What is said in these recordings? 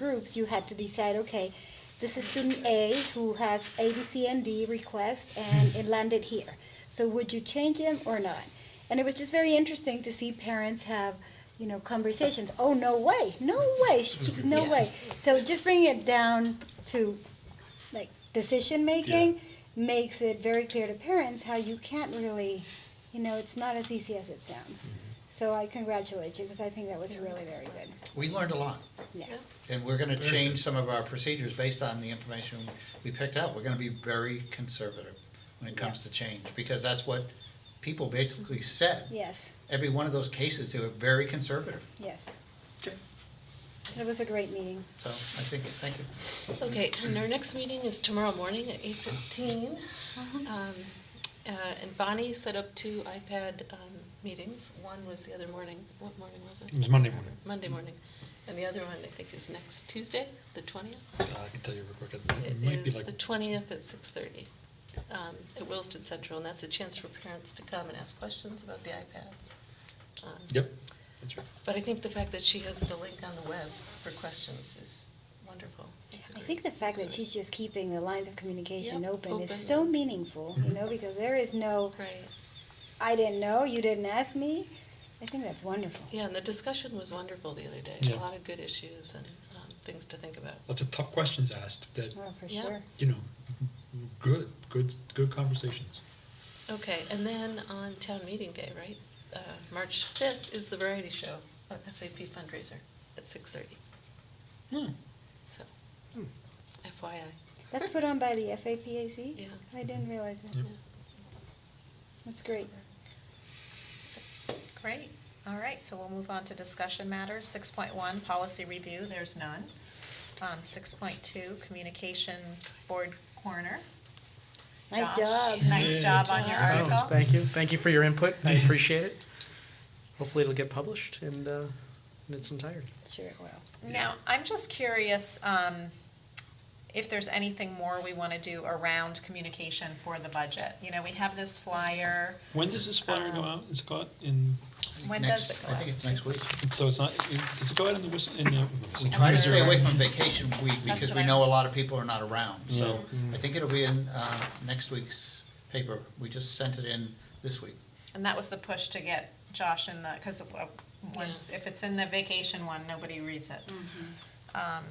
groups, you had to decide, okay, this is student A who has A, B, C, and D requests, and it landed here. So would you change him or not? And it was just very interesting to see parents have, you know, conversations. Oh, no way, no way, she- no way. So just bringing it down to like decision making makes it very clear to parents how you can't really, you know, it's not as easy as it sounds. So I congratulate you because I think that was really very good. We learned a lot. Yeah. And we're gonna change some of our procedures based on the information we picked out. We're gonna be very conservative when it comes to change, because that's what people basically said. Yes, Every one of those cases, they were very conservative. yes. Okay. It was a great meeting. So I think, thank you. Okay, and our next meeting is tomorrow morning at eight fifteen. Uh-huh. Uh, And Bonnie set up two iPad um, meetings. One was the other morning, what morning was It it? was Monday morning. Monday morning. And the other one, I think, is next Tuesday, the twentieth. Uh, I can tell you real quick. It might, It it might be is like the twentieth at six thirty um, at Williston Central, and that's a chance for parents to come and ask questions about the iPads. Um, yep. That's right. But I think the fact that she has the link on the web for questions is wonderful. It's a I great think the fact that resource. she's just keeping the lines of communication Yep, open is open. so meaningful, you Mhm. know, because there is no, Right. I didn't know, you didn't ask me. I think that's wonderful. Yeah, and the discussion was wonderful the other day. Yeah. A lot of good issues and um, things to think about. Lots of tough questions asked. That Oh, for Yeah. sure. you know, good, good, good conversations. Okay, and then on town meeting day, right? Uh, March 5th is the variety show, uh, FAP fundraiser at 6:30. Hmm. So, FYI, That's put on by the FAPAC? Yeah. I didn't realize that. Yep. That's great. Great, all right, so we'll move on to discussion matters. Six point one, policy review, there's none. Um, six point two, communication board corner. Nice Josh, job. Nice job on your Oh, article. Thank you, thank you for your input, I appreciate it. Hopefully it'll get published and, uh, in its entirety. Sure it will. Now, I'm just curious, um, if there's anything more we wanna do around communication for the budget. You know, we have this flyer, When does this flyer go out, is it go out in, when Next- does it go I out? think it's next week. so it's not, does it go out in the whistle, in the? We try to Is there stay a- away from vacation week because what we I- know a lot of people are not around. So I think it'll be in uh, next week's paper. We just sent it in this week. And that was the push to get Josh in the, because once, if it's in the vacation one, nobody reads it. Um,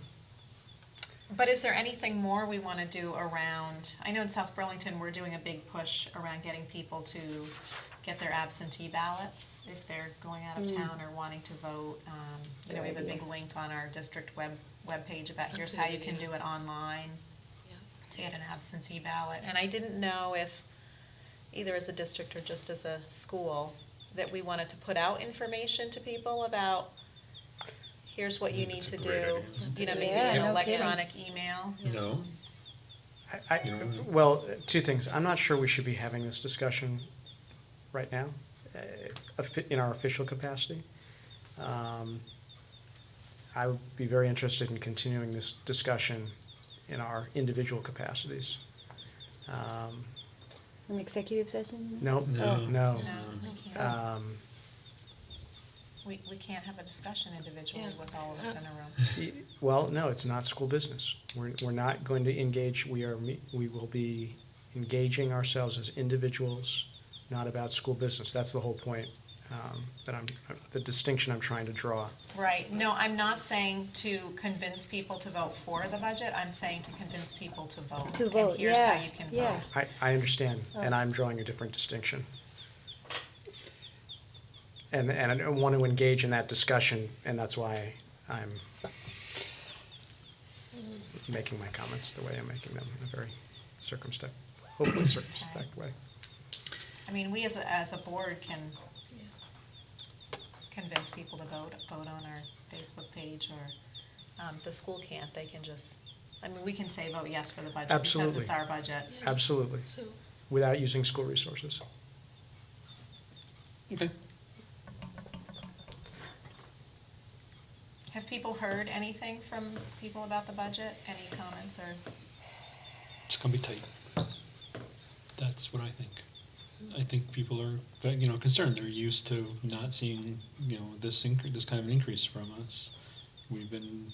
But is there anything more we want to do around, I know in South Burlington, we're doing a big push around getting people to get their absentee ballots if they're going out of town or wanting to vote. Um, You know, we have a Good big link on our district web, webpage about That's here's a how good you can idea. do it online yeah. to get an absentee ballot, and I didn't know if, either as a district or just as a school, that we wanted to put out information to people about, here's what you need to do, That's you know, a maybe good idea. an Yeah, no kidding. electronic email. No. I, I, well, two things, I'm not sure we should be having this discussion right now, uh, offi- in our official capacity. Um, I would be very interested in continuing this discussion in our individual capacities. Um, An executive session? no, No. no, No, we Uh, can't. um, We, we can't have a discussion individually Yeah. with all of us Uh-huh. in a room. Well, no, it's not school business. We're, we're not going to engage, we are, me- we will be engaging ourselves as individuals, not about school business. That's the whole point, um, that I'm, the distinction I'm trying to draw. Right, no, I'm not saying to convince people to vote for the budget, I'm saying to convince people to vote. To and vote, here's how yeah, you can yeah. vote. I, I understand, and I'm drawing a different distinction. And, and I don't want to engage in that discussion, and that's why I'm making my comments the way I'm making them, in a very circumspect, hopefully circumspect way. I mean, we as a, as a board can convince people to vote, vote on our Facebook page, or, um, the school can't, they can just, I mean, we can say vote yes for the budget because Absolutely. it's our budget. Absolutely, So, without using school resources. Okay. Have people heard anything from people about the budget? Any comments or? It's gonna be tight. That's what I think. I think people are, you know, concerned. They're used to not seeing, you know, this inc- this kind of an increase from us. We've been